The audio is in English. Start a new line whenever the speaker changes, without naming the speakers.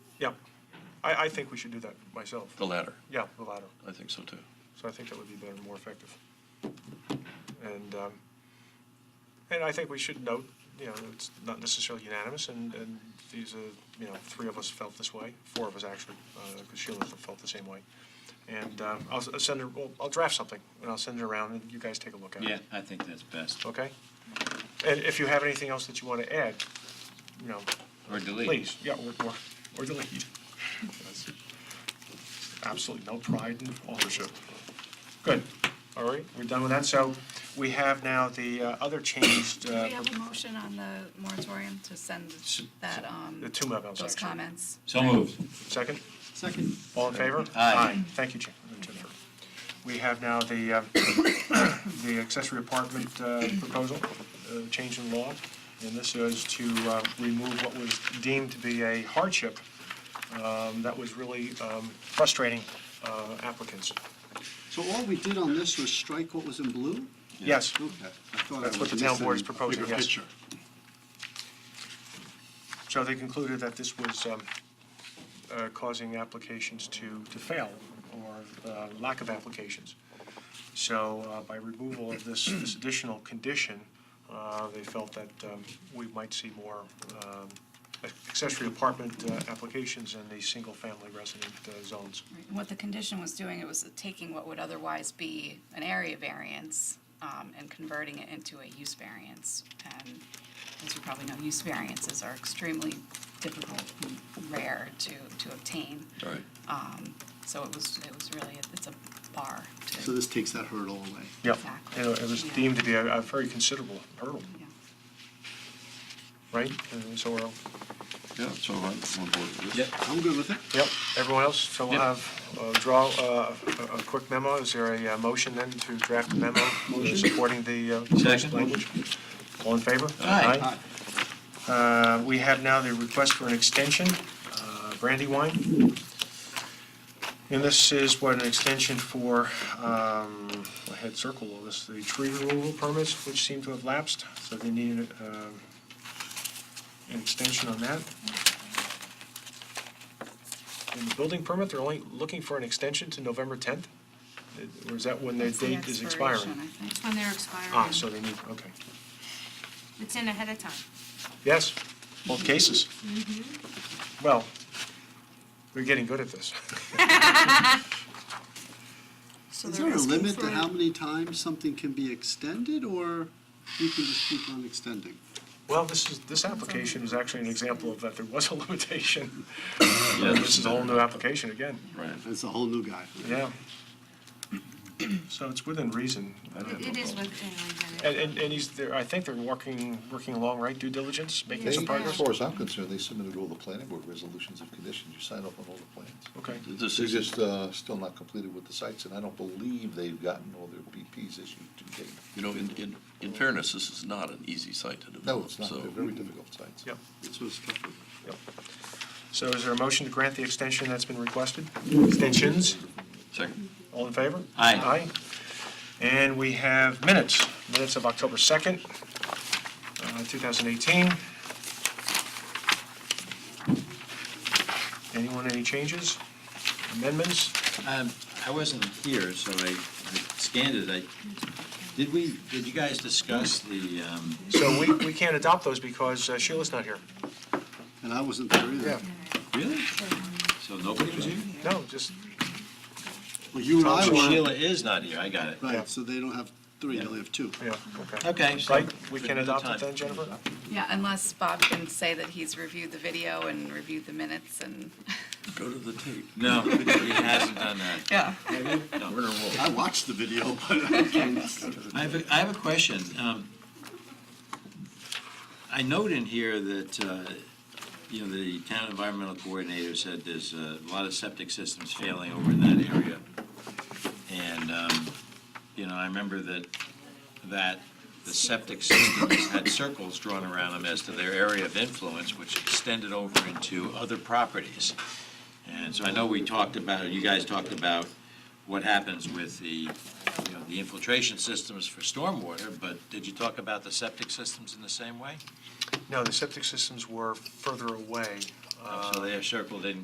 Yeah, I, I think we should do that myself.
The latter.
Yeah, the latter.
I think so too.
So I think that would be better, more effective. And, um, and I think we should note, you know, it's not necessarily unanimous, and, and these are, you know, three of us felt this way, four of us actually, because Sheila felt the same way. And um, I'll s- I'll send her, well, I'll draft something, and I'll send it around, and you guys take a look at it.
Yeah, I think that's best.
Okay? And if you have anything else that you want to add, you know,
Or delete.
Please, yeah, or, or, or delete. Yes. Absolutely no pride in authorship. Good, all right, we're done with that, so we have now the uh, other changed,
Do
uh,
we have a motion on the moratorium to send that, um,
the two memos,
those
actually.
comments?
So moved.
Second,
Second.
all in favor?
Aye.
Thank you, Jen- Jennifer. We have now the, uh, the accessory apartment uh, proposal, uh, change in law, and this is to uh, remove what was deemed to be a hardship um, that was really um, frustrating uh, applicants.
So all we did on this was strike what was in blue?
Yes,
Okay. I thought I
That's what
was
the town
missing
board is
a
proposing,
bigger
yes.
picture.
so they concluded that this was um, uh, causing applications to, to fail, or uh, lack of applications. So uh, by removal of this, this additional condition, uh, they felt that um, we might see more um, accessory apartment uh, applications in the single-family resident uh, zones.
Right, and What the condition was doing, it was taking what would otherwise be an area variance um, and converting it into a use variance. And as you probably know, use variances are extremely difficult and rare to, to obtain.
All right.
So it was, it was really, it's a bar
So
to,
this takes that hurdle away.
Yeah,
Exactly.
it it was deemed to be a a very considerable hurdle,
yeah.
right? And so we're,
Yeah, so I'm on board with this.
Yep.
I'm good with it.
Yep, everyone else, so we'll
Yep.
have, uh, draw uh, a a quick memo, is there a uh, motion then to draft a memo supporting the uh, proposed
Second.
language? All in favor?
Aye.
Aye. Uh, We have now the request for an extension, uh, Brandywine. And this is what, an extension for, um, I had circle all this, the tree removal permits, which seem to have lapsed, so they need um, an extension on that. And the building permit, they're only looking for an extension to November 10th? Or is that when their
That's the
date is
expiration,
expiring?
I think.
It's when they're
Ah, so
expiring.
they need, okay.
It's in ahead of time.
Yes, both cases. Well, we're getting good at this.
Is there a limit to how many times something can be extended, or you can just keep on extending?
Well, this is, this application is actually an example of that there was a limitation.
Yeah,
This is a whole new application again,
Right.
That's a whole new guy.
yeah. So it's within reason. I don't have no
It is
problem. And,
within reason.
and, and he's, they're- I think they're working, working along, right, due diligence, making
They,
some
as
progress?
far as I'm concerned, they submitted all the planning board resolutions of conditions, you sign up on all the plans.
Okay,
This
They're
is
just, uh, still not completed with the sites, and I don't believe they've gotten all their BPs issued to date.
You know, in, in, in fairness, this is not an easy site to develop.
No, it's not,
so-
they're very difficult sites.
yep,
That's what's tough with it.
yep. So is there a motion to grant the extension that's been requested? Extensions?
Second.
All in favor?
Aye.
Aye. And we have minutes, minutes of October 2nd, uh, 2018. Anyone, any changes, amendments?
Um, I wasn't here, so I I scanned it. I, did we, did you guys discuss the, um,
So we, we can't adopt those because uh, Sheila's not here.
And I wasn't there either.
really? So nobody was here?
No, just,
Well, you and I
Oh,
were,
Sheila is not here. I got it.
Yeah.
right, so they don't have three, they only have two.
yeah, okay.
Okay. so-
Right, we can adopt it then, Jennifer?
Yeah, unless Bob can say that he's reviewed the video and reviewed the minutes and.
Go to the tape.
No, he hasn't done that.
Yeah.
No, we're in a roll.
I watched the video, but I can't.
I have, a I have a question. Um, I note in here that, uh, you know, the town environmental coordinator said there's uh, a lot of septic systems failing over in that area. And, um, you know, I remember that, that the septic systems had circles drawn around them as to their area of influence, which extended over into other properties. And so I know we talked about, or you guys talked about what happens with the you know, the infiltration systems for stormwater, but did you talk about the septic systems in the same way?
No, the septic systems were further away.
So they are circled in